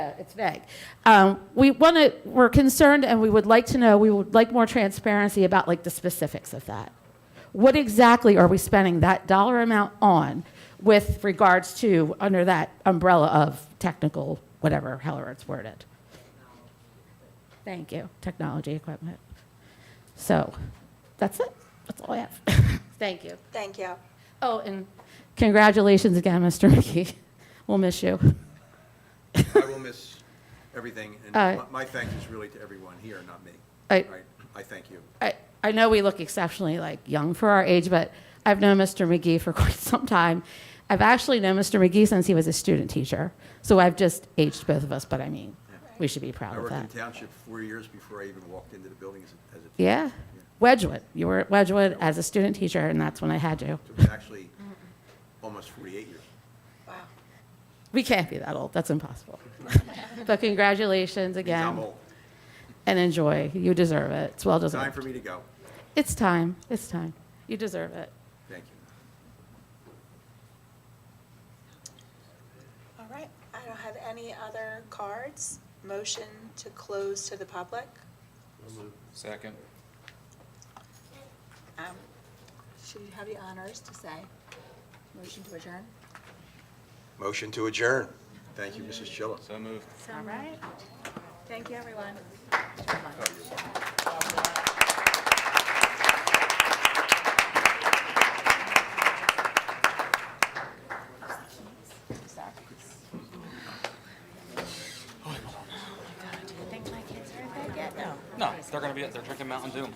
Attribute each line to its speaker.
Speaker 1: it's vague. Um, we want to, we're concerned and we would like to know, we would like more transparency about like the specifics of that. What exactly are we spending that dollar amount on with regards to, under that umbrella of technical, whatever, however it's worded? Thank you, technology equipment. So, that's it, that's all I have. Thank you.
Speaker 2: Thank you.
Speaker 1: Oh, and congratulations again, Mr. McKee. We'll miss you.
Speaker 3: I will miss everything, and
Speaker 1: Uh,
Speaker 3: my- my thanks is really to everyone here, not me.
Speaker 1: I-
Speaker 3: I thank you.
Speaker 1: I, I know we look exceptionally like young for our age, but I've known Mr. McGee for quite some time. I've actually known Mr. McGee since he was a student teacher, so I've just aged both of us. But I mean, we should be proud
Speaker 3: I
Speaker 1: of
Speaker 3: worked in
Speaker 1: that.
Speaker 3: township four years before I even walked into the building as a, as a,
Speaker 1: Yeah, Wedgwood. You were at Wedgwood as a student teacher, and that's when I had you.
Speaker 3: it was actually almost 48 years.
Speaker 2: Wow.
Speaker 1: We can't be that old. That's impossible. but congratulations
Speaker 3: Means
Speaker 1: again,
Speaker 3: I'm old.
Speaker 1: and enjoy. You deserve it. It's well
Speaker 3: Time
Speaker 1: deserved.
Speaker 3: for me to go.
Speaker 1: It's time. It's time. You deserve it.
Speaker 3: Thank you.
Speaker 2: All right. I don't have any other cards. Motion to close to the public.
Speaker 4: Second.
Speaker 2: Um, Should you have the honors to say? Motion to adjourn?
Speaker 3: Motion to adjourn. Thank you, Mrs. Schiller.
Speaker 4: So moved.
Speaker 2: All right. Thank you, everyone.
Speaker 5: Do you think my kids are in bed yet? No.
Speaker 4: No, they're gonna be, they're drinking Mountain Dew.